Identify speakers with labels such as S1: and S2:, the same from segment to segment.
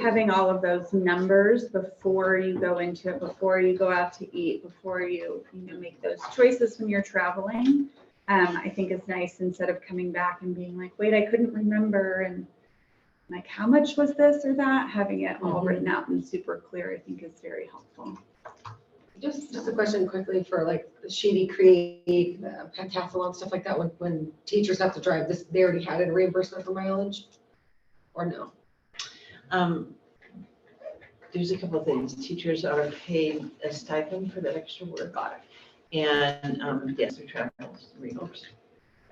S1: having all of those numbers before you go into it, before you go out to eat, before you, you know, make those choices when you're traveling, um, I think is nice instead of coming back and being like, wait, I couldn't remember and like, how much was this or that? Having it all
S2: Mhm.
S1: written out and super clear, I think is very helpful.
S2: Just, just a question quickly for like the Sheedy Creek, uh, Pentathlon, stuff like that, when, when teachers have to drive, this, they already had a reimbursement for mileage? Or no?
S3: Um, There's a couple of things. Teachers are paid a stipend for that extra work. And, um, yes, we travel reimbursed.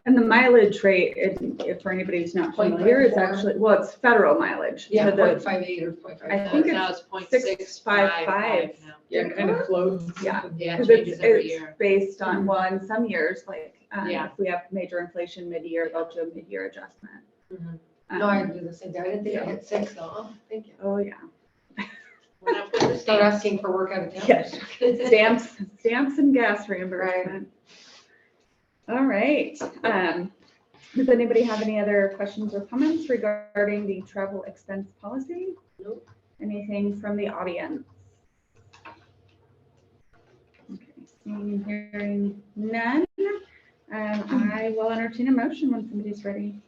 S1: And the mileage rate, if, if for anybody who's not
S2: Point
S1: familiar, is
S2: four.
S1: actually, well, it's federal mileage. So
S2: Yeah,
S1: the-
S2: point five eight or point five.
S1: I think it's
S4: Now it's point
S1: six,
S4: six
S1: five,
S4: five
S1: five.
S4: five now.
S5: Yeah, it kind of flows.
S1: Yeah.
S4: Yeah,
S1: Because
S4: it
S1: it's,
S4: changes every
S1: it's
S4: year. Mm-hmm.
S1: based on, well, in some years, like, um,
S4: Yeah.
S1: if we have major inflation mid-year, they'll do a mid-year adjustment.
S4: Mhm.
S2: No, I
S1: Um,
S2: do the same thing. I didn't think I hit six though. Thank you.
S1: Oh, yeah.
S4: When I put this
S2: Start
S4: down,
S2: asking for work out of town.
S1: Yes. Stamps, stamps and gas reimbursement. All right. Um, does anybody have any other questions or comments regarding the travel expense policy?
S2: Nope.
S1: Anything from the audience? Okay, Seeing and hearing none, um, I will entertain a motion when somebody's ready.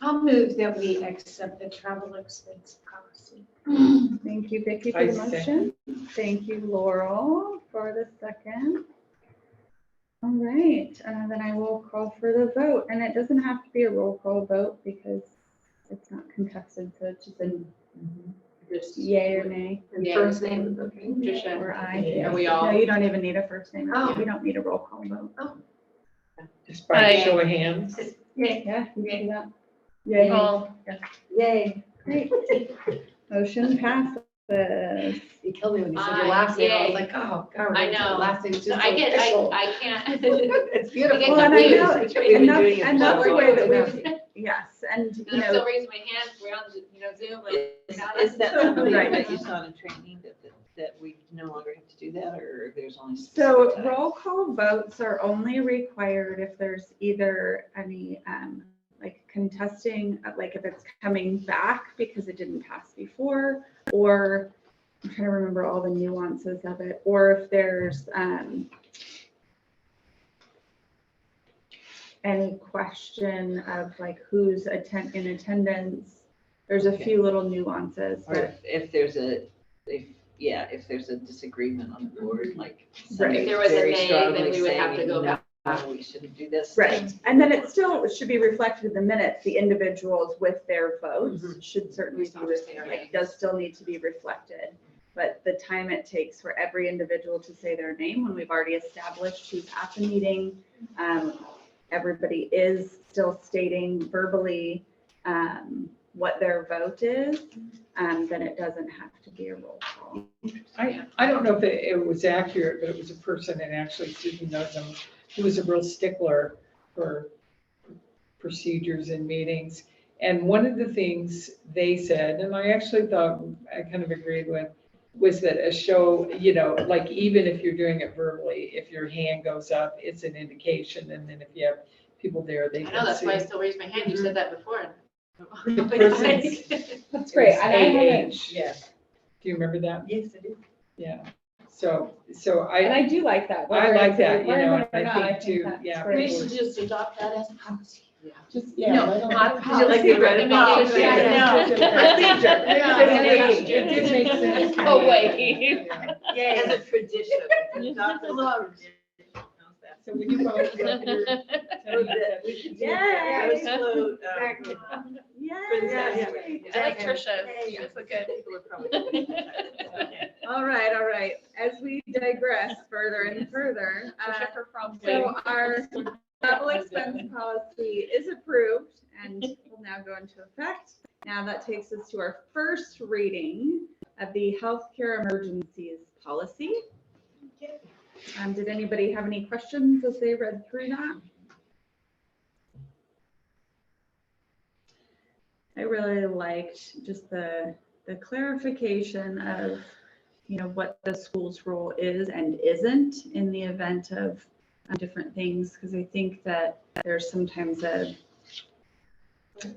S6: I'll move that we accept the travel expense policy.
S1: Thank you, Vicky, for
S5: I
S1: the motion. Thank you, Laurel, for the second. All right, uh, then I will call for the vote, and it doesn't have to be a roll call vote because it's not contested, so it's just a
S5: Mm-hmm.
S1: yay or nay.
S2: And
S4: Yeah.
S2: First name is okay.
S4: Tricia,
S1: Or
S4: are
S1: I.
S4: we
S1: No,
S4: all?
S1: you don't even need a first name.
S2: Oh.
S1: We don't need a roll call vote.
S5: Just
S3: Oh,
S5: by
S6: Aye.
S5: a show of hands.
S1: Yeah, you can do that. Yeah,
S6: All
S2: Yay.
S1: great. Motion passes.
S2: You killed me when you said your
S4: Aye,
S2: last name. I was
S4: yay.
S2: like, oh, God.
S4: I
S2: we're gonna do
S4: know.
S2: Last name's just
S4: I get,
S2: official.
S4: I, I can't.
S2: It's beautiful.
S1: Well, and I know,
S2: It's what we've
S1: and
S2: been
S1: that's,
S2: doing in
S1: and that's the way that
S2: Florida.
S1: we, yes, and, you
S4: And I'm
S1: know,
S4: still raising my hand, we're on, you know, Zoom. like,
S3: Is
S4: not
S3: is
S4: on-
S3: that something
S1: Right.
S3: that you saw in training that, that- that we no longer have to do that or there's only?
S1: So
S3: specific
S1: roll call votes are only required if there's either any, um, like contesting, uh, like if it's coming back because it didn't pass before, or I'm trying to remember all the nuances of it, or if there's, um, any question of like who's attend, in attendance. There's a
S3: Okay.
S1: few little nuances,
S3: Or
S1: but
S3: if- if there's a, if, yeah, if there's a disagreement on the board, like.
S1: Right.
S4: If there was a
S3: very
S4: nay, then
S3: strongly
S4: we would have to
S3: saying,
S4: go
S3: "No, We shouldn't do this.
S1: Right, and then it still should be reflected in the minutes, the individuals with their votes
S5: Mm-hmm.
S1: should certainly be, ref- like, does still need to be reflected. But the time it takes for every individual to say their name, when we've already established who's at the meeting, um, everybody is still stating verbally, um, what their vote is, um, then it doesn't have to be a roll call.
S5: I, I don't know if it it was accurate, but it was a person that actually didn't know them. He was a real stickler for procedures and meetings. And one of the things they said, and I actually thought, I kind of agreed with, was that a show, you know, like even if you're doing it verbally, if your hand goes up, it's an indication. And then if you have people there, they
S4: I know,
S5: can
S4: that's
S5: see.
S4: why I still raise my hand, you said that before.
S5: The person's-
S1: That's
S5: Yes.
S3: Yeah.
S5: Do you remember that?
S3: Yes, I do.
S5: Yeah. So, so I.
S1: I do like that.
S5: I like that, you know,
S1: whether it's a
S5: and
S1: requirement or not,
S5: I think too,
S1: that's
S5: yeah.
S1: great.
S5: people-
S6: just adopt that as policy.
S4: No,
S5: Just, yeah.
S4: not
S5: Did you like
S4: policy
S5: the red box?
S4: recommendation,
S5: Oh, Yeah.
S4: no. Yeah.
S5: Procedure. It did- it did make sense.
S6: Oh, wait.
S5: Yeah.
S3: As a tradition. Dr. Love.
S5: So would you follow it up here? Tell me that we should do that.
S1: Yay.
S3: Exactly.
S1: Yay.
S6: I like Trisha. She was so good.
S1: All right, all right. As we digress further and further, uh,
S6: Trisha for prom
S1: so
S6: queen.
S1: our travel expense policy is approved and will now go into effect. Now that takes us to our first reading of the healthcare emergencies policy. Um, did anybody have any questions as they read through that? I really liked just the, the clarification of, you know, what the school's role is and isn't in the event of uh, different things, because I think that there's sometimes a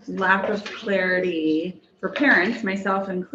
S1: lack of clarity for parents, myself included.